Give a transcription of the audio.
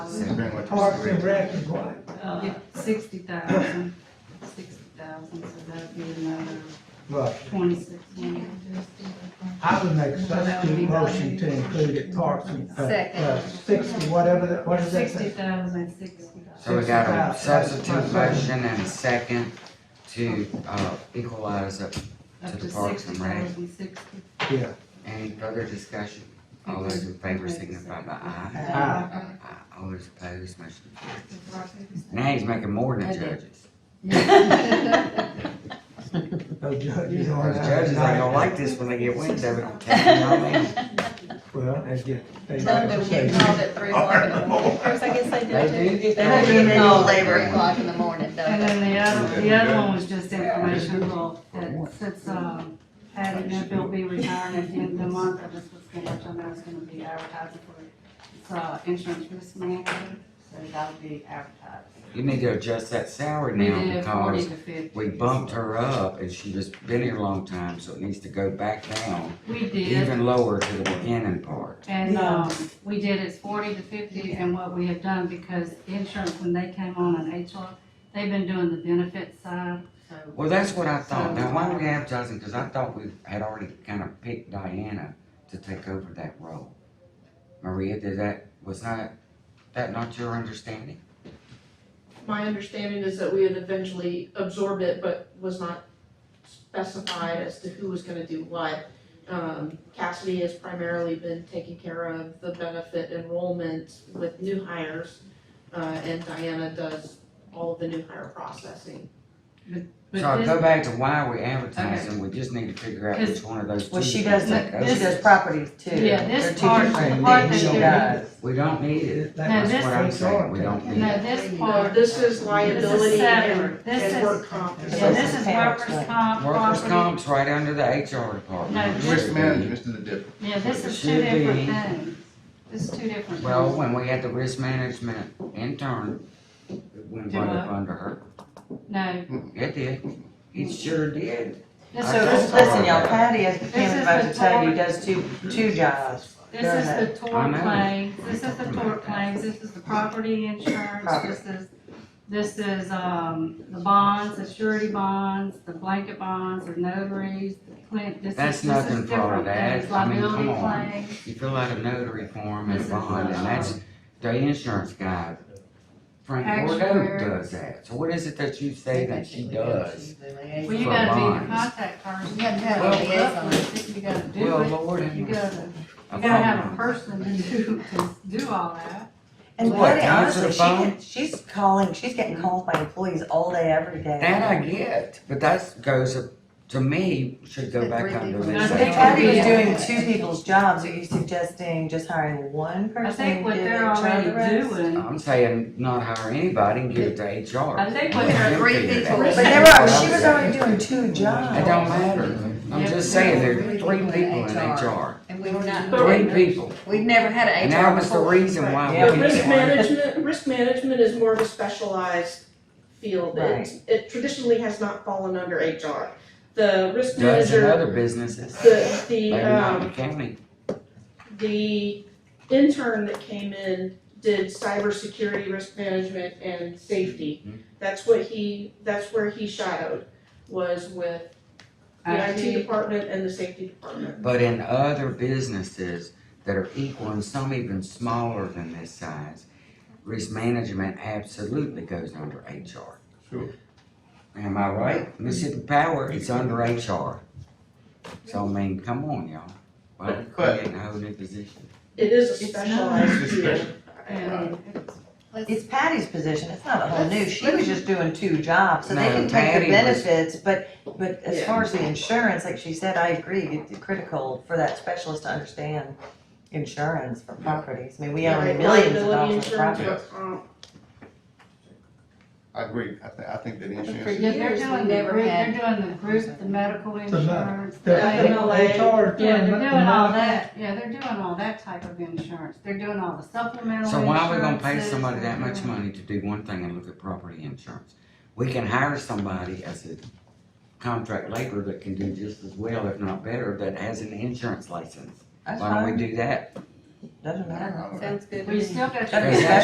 Parks and Grant, what you Parks and said. Rec is what? Yeah, sixty thousand, sixty thousand, so that'd be another Right. twenty-six hundred. I would That make such would a be motion to include it Parks and, uh, Second. uh, sixty, whatever, that- what is that? Sixty thousand, sixty. So we got a substitute motion and a second to, uh, equalize up. Up To to the Parks sixty and Rec. thousand, sixty. Yeah, Any further discussion? All those in favor signify by aye. Aye. Aye. All those opposed, motion carries. Now he's making more than judges. no judges on Those that. judges ain't gonna like this when they get wind of it. You know what I mean? Well, they get, they Some like of to them get say, called at three o'clock in the morning. Of course, I guess they They do do too. get They that. don't get called at three o'clock in the morning, don't And they? then the other, the other one was just informational, that since, um, Patty Neville will be retiring at the end of the month, I just was gonna let you know it's gonna be advertising for, it's, uh, insurance risk management, so that'll be advertised. You need to adjust that salary We now did forty because to fifty. we bumped her up and she just been here a long time, so it needs to go back down, We did, even lower to the beginning part. and, um, we did it's forty to fifty, and what we have done, because insurance, when they came on in HR, they've been doing the benefit side, so. Well, that's what I thought. Now, why are we advertising? Cause I thought we had already kind of picked Diana to take over that role. Maria, did that, was not, that not your understanding? My understanding is that we had eventually absorbed it, but was not specified as to who was gonna do what. Um, Cassidy has primarily been taking care of the benefit enrollment with new hires, uh, and Diana does all of the new hire processing. But So I this- go back to why we advertising. We just need to figure out Cause- which one of those two. Well, she to does take that, over. she does property too. Yeah, this They're two part- different the part things that she they're- does. We don't need it. that- that No, was this That's what I'm what HR saying, we did. don't need No, it. this Uh, part, this is liability and, separate. This and is- work comp. or yeah, this is Workers' comp, workers' right. comp, Workers' property, comp's right under the HR department. No, It should Risk be. management is the difference. yeah, this is two Should be. different things, this is two different Well, things. when we had the risk management intern, it went Do right up what? under her. No, It did. It sure did. this So is, this, listen, y'all, Patty, as the This is county about the to tell you, part- does two, two jobs, this is the I tort know. claims, this is the tort claims, this is the property insurance, Property. this is, this is, um, the bonds, the surety bonds, the blanket bonds, the notaries, the Clint, this is, That's this nothing is for all different that. things, I mean, liability come on. claims. You fill out a notary form and a This is bond, the, and that's, the insurance guy, Frank Bordeaux Actuary. does that. So what is it that you say that she does? Well, you gotta be For the bonds. contact person. You gotta have a Well, liaison. You gotta do Well, it. Lord, Um, have You mercy. gotta, A you gotta have phone a number. person to do, to do all that. And What, Patty, answer the honestly, she phone? can, she's calling, she's getting calls by employees all day, every day. That I get, but that goes, up- to me, should go back under I this. think If Patty was Yeah. doing two people's jobs, are you suggesting just hiring one person? I think and what give they're HR the already rest? doing, I'm saying not hire anybody and give it to HR. I think Let what they're them three figure people. that But out. they were, she was already doing two jobs. It don't matter. I'm just saying, there are three Yeah. people in HR, And we've not, three people. we've never had an And HR that was the before. reason why Yeah, But we risk didn't want it. management, risk management is more of a specialized field. Right. It, it traditionally has not fallen under HR. The risk Does in manager, other businesses, the, the, maybe not in um, the county. the intern that came in did cybersecurity, risk management, and Hmm. safety. That's what he, that's where he shadowed, was with the IT IT, department and the safety department. But in other businesses that are equal and some even smaller than this size, risk management absolutely goes under HR. Sure. Am I right? Mississippi Power, it's under HR. So I mean, come on, y'all. Why we But- creating a whole new position? It is a It's not. specialized It's field. special. and It's Patty's position, it's not a whole new, she was just doing two jobs, so they No, can take Patty the was- benefits, but, but as Yeah. far as the insurance, like she said, I agree, it's critical for that specialist to understand insurance for properties, I mean, we own Right, millions of liability dollars of insurance, property. work comp. I agree, I think, I think that for insurance, years, they're Years we doing the never group, they're had. doing the group, the medical insurance. The- the- Yeah. HR is doing. Yeah, they're the doing all monitoring. that, yeah, they're doing all that type of insurance, they're doing all the supplemental So why are we gonna pay insurances. somebody that much money to do one thing and look at property insurance? We can hire somebody as a contract laborer that can do just as well, if not better, that has an insurance license. That's Why don't fine, we do that? doesn't matter. Sounds good to Well, you me. still got your. That'd be special.